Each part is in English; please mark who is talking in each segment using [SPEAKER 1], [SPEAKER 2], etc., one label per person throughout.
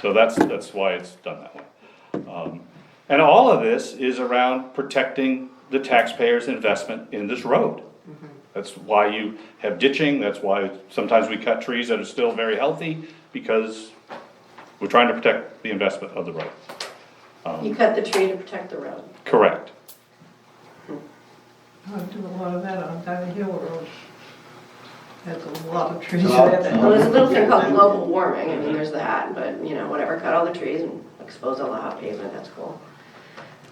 [SPEAKER 1] So that's, that's why it's done that way. Um, And all of this is around protecting the taxpayer's investment in this road. That's why you have ditching, that's why sometimes we cut trees that are still very healthy, because we're trying to protect the investment of the road.
[SPEAKER 2] You cut the tree to protect the road.
[SPEAKER 1] Correct.
[SPEAKER 3] I do a lot of that on Diamond Hill Road. There's a lot of trees
[SPEAKER 4] Oh,
[SPEAKER 3] there
[SPEAKER 2] Well,
[SPEAKER 3] that,
[SPEAKER 2] there's a little thing called global warming, I mean, there's that, but, you know, whatever, cut all the trees and expose all the hot pavement, that's cool.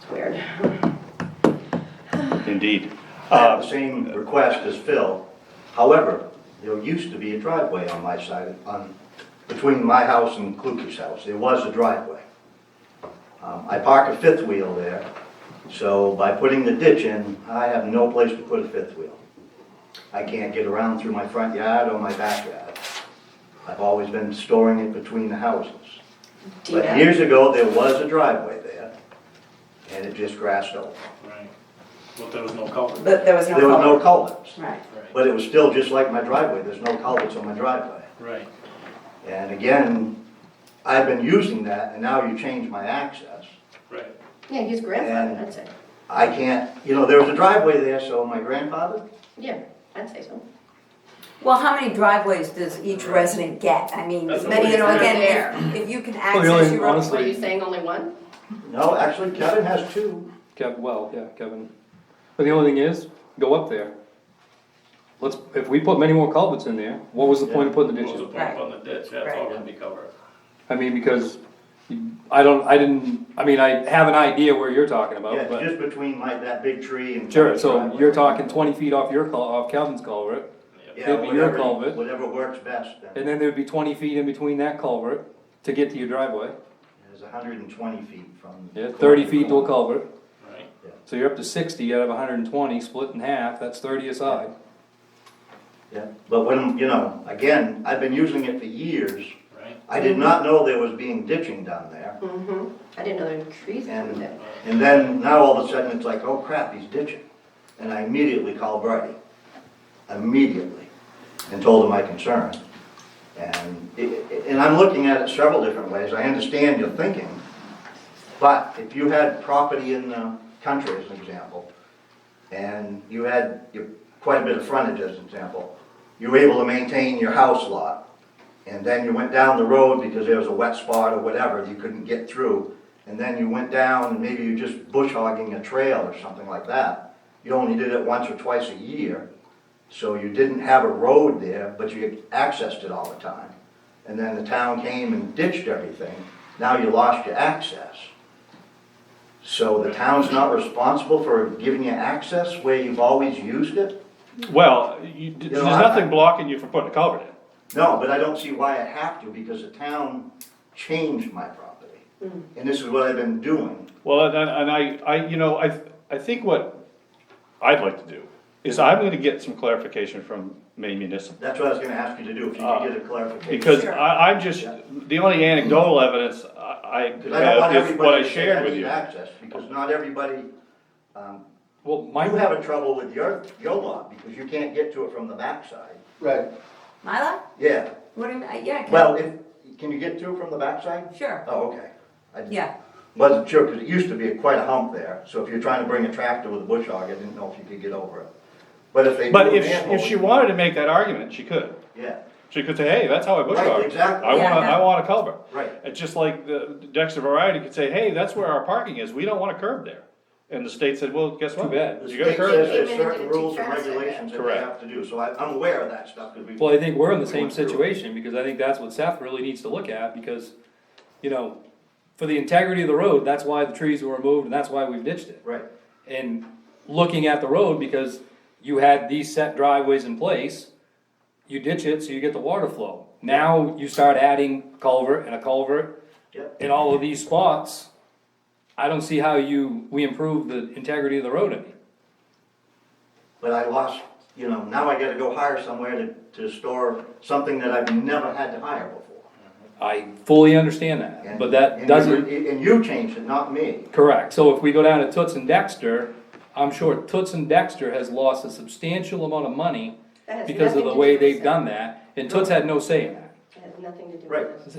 [SPEAKER 2] It's weird.
[SPEAKER 1] Indeed.
[SPEAKER 4] I have the same request as Phil. However, there used to be a driveway on my side, on, between my house and Kluge's house. There was a driveway. Um, I park a fifth wheel there, so by putting the ditch in, I have no place to put a fifth wheel. I can't get around through my front yard or my backyard. I've always been storing it between the houses.
[SPEAKER 2] Do you
[SPEAKER 4] But
[SPEAKER 2] know?
[SPEAKER 4] years ago, there was a driveway there, and it just grassed over.
[SPEAKER 5] Right, but there was no culvert.
[SPEAKER 6] But there was no
[SPEAKER 4] There was no
[SPEAKER 6] culvert.
[SPEAKER 4] culverts.
[SPEAKER 2] Right.
[SPEAKER 5] Right,
[SPEAKER 4] But it was still just like my driveway, there's no culverts on my driveway.
[SPEAKER 5] right,
[SPEAKER 4] And again, I've been using that, and now you change my access.
[SPEAKER 5] right.
[SPEAKER 2] Yeah, he's grandfather, I'd say.
[SPEAKER 4] I can't, you know, there was a driveway there, so my grandfather,
[SPEAKER 2] Yeah, I'd say so.
[SPEAKER 6] Well, how many driveways does each resident get? I mean,
[SPEAKER 5] That's
[SPEAKER 6] many, you
[SPEAKER 5] the
[SPEAKER 6] know,
[SPEAKER 2] way it's
[SPEAKER 6] again, if- if you can
[SPEAKER 7] Well,
[SPEAKER 6] access
[SPEAKER 7] really,
[SPEAKER 6] your own.
[SPEAKER 7] honestly-
[SPEAKER 2] What are you saying, only one?
[SPEAKER 4] no, actually Kevin has two.
[SPEAKER 7] Kev, well, yeah, Kevin. But the only thing is, go up there. Let's, if we put many more culverts in there, what was the point of putting the
[SPEAKER 5] What
[SPEAKER 7] ditch
[SPEAKER 5] was the
[SPEAKER 7] in?
[SPEAKER 5] point on the ditch, that's all gonna be covered.
[SPEAKER 7] I mean, because you- I don't, I didn't, I mean, I have an idea where you're talking
[SPEAKER 4] Yeah,
[SPEAKER 7] about,
[SPEAKER 4] it's
[SPEAKER 7] Oh, but.
[SPEAKER 4] just between my, that big tree and.
[SPEAKER 7] Sure, so
[SPEAKER 4] driveway.
[SPEAKER 7] you're talking twenty feet off your, cul- off Kevin's culvert,
[SPEAKER 4] Yeah,
[SPEAKER 7] it'd be your
[SPEAKER 4] whatever-
[SPEAKER 7] culvert.
[SPEAKER 4] Whatever works best, then.
[SPEAKER 7] and then there'd be twenty feet in between that culvert to get to your driveway.
[SPEAKER 4] It's hundred and twenty feet from.
[SPEAKER 7] Yeah, thirty feet to a
[SPEAKER 4] culvert.
[SPEAKER 7] culvert,
[SPEAKER 5] Right,
[SPEAKER 7] so you're up to sixty out of hundred and twenty, split in half, that's thirty aside.
[SPEAKER 4] Yeah, but when, you know, again, I've been using it for years.
[SPEAKER 5] right.
[SPEAKER 4] I did not know there was being ditching down there.
[SPEAKER 2] Mm-hmm. I didn't know there were trees down
[SPEAKER 4] And,
[SPEAKER 2] there.
[SPEAKER 4] and then now all of a sudden it's like, oh crap, he's ditching. And I immediately called Brady, immediately, and told him my concern. And, i- i- and I'm looking at it several different ways. I understand your thinking. But if you had property in the country as an example, and you had your- quite a bit of frontage as an example, you were able to maintain your house lot, and then you went down the road because there was a wet spot or whatever, you couldn't get through, and then you went down and maybe you're just bush hogging a trail or something like that. You only did it once or twice a year, so you didn't have a road there, but you accessed it all the time. And then the town came and ditched everything, now you lost your access. So the town's not responsible for giving you access where you've always used it?
[SPEAKER 1] Well, you, there's
[SPEAKER 4] know, I-
[SPEAKER 1] nothing blocking you from putting a culvert in.
[SPEAKER 4] No, but I don't see why I have to, because the town changed my property.
[SPEAKER 6] Mm.
[SPEAKER 4] And this is what I've been doing.
[SPEAKER 1] Well, and, and I, I, you know, I, I think what I'd like to do is I'm gonna get some clarification from Maine Municipal.
[SPEAKER 4] That's what I was gonna ask you to do, if you could get a clarification.
[SPEAKER 1] Uh, Because I, I'm just, the only anecdotal evidence I
[SPEAKER 4] Because
[SPEAKER 1] I
[SPEAKER 4] I don't want
[SPEAKER 1] have is uh, what I
[SPEAKER 4] everybody to say
[SPEAKER 1] shared
[SPEAKER 4] I
[SPEAKER 1] with
[SPEAKER 4] need
[SPEAKER 1] you.
[SPEAKER 4] access, because not everybody,
[SPEAKER 7] Well,
[SPEAKER 4] you
[SPEAKER 7] my,
[SPEAKER 4] have a trouble with your, your lot, because you can't get to it from the backside.
[SPEAKER 8] Right,
[SPEAKER 6] My lot?
[SPEAKER 4] Yeah,
[SPEAKER 6] What do you, mean? Uh, yeah, I can-
[SPEAKER 4] well, if, can you get to it from the backside?
[SPEAKER 6] sure,
[SPEAKER 4] Oh, okay. I
[SPEAKER 6] yeah.
[SPEAKER 4] Wasn't sure, because it used to be quite a hump there, so if you're trying to bring a tractor with a bush hog, I didn't know if you could get over it. But if they do
[SPEAKER 1] But
[SPEAKER 4] a
[SPEAKER 1] if,
[SPEAKER 4] manhole.
[SPEAKER 1] if she wanted to make that argument, she could.
[SPEAKER 4] Yeah,
[SPEAKER 1] She could say, hey, that's how I bush
[SPEAKER 4] Right,
[SPEAKER 1] hog.
[SPEAKER 4] exactly.
[SPEAKER 1] I
[SPEAKER 6] Yeah,
[SPEAKER 1] wanna,
[SPEAKER 6] yeah.
[SPEAKER 1] I want a culvert.
[SPEAKER 4] Right.
[SPEAKER 1] It's just like the Dexter Variety could say, hey, that's where our parking is, we don't want a curb there. And the state said, well, guess what?
[SPEAKER 7] Too bad.
[SPEAKER 1] You got a
[SPEAKER 4] It
[SPEAKER 1] curb
[SPEAKER 4] says
[SPEAKER 1] there.
[SPEAKER 4] there's
[SPEAKER 2] Came in and did
[SPEAKER 4] certain
[SPEAKER 2] it too
[SPEAKER 4] rules and
[SPEAKER 2] fast, I bet.
[SPEAKER 4] regulations that they
[SPEAKER 1] Correct.
[SPEAKER 4] have to do, so I, I'm aware of that stuff, because we.
[SPEAKER 7] well, I think we're in the same
[SPEAKER 4] we went through it.
[SPEAKER 7] situation, because I think that's what Seth really needs to look at, because, you know, for the integrity of the road, that's why the trees were removed, and that's why we've ditched it.
[SPEAKER 4] Right,
[SPEAKER 7] And looking at the road, because you had these set driveways in place, you ditch it, so you get the water flow. Now you start adding culvert and a culvert
[SPEAKER 4] yep,
[SPEAKER 7] in all of these spots, I don't see how you, we improve the integrity of the road any.
[SPEAKER 4] but I lost, you know, now I gotta go hire somewhere to, to store something that I've never had to hire before.
[SPEAKER 7] I fully understand that,
[SPEAKER 4] And-
[SPEAKER 7] but
[SPEAKER 4] and
[SPEAKER 7] that
[SPEAKER 4] you-
[SPEAKER 7] doesn't.
[SPEAKER 4] And you changed it, not me.
[SPEAKER 7] Correct, so if we go down to Toots and Dexter, I'm sure Toots and Dexter has lost a substantial amount of money
[SPEAKER 2] That has
[SPEAKER 7] because
[SPEAKER 2] nothing
[SPEAKER 7] of the
[SPEAKER 2] to
[SPEAKER 7] way
[SPEAKER 2] do with
[SPEAKER 7] they've
[SPEAKER 2] it.
[SPEAKER 7] done that, and Toots had no say in that.
[SPEAKER 2] It has nothing to do with
[SPEAKER 4] Right.
[SPEAKER 2] this.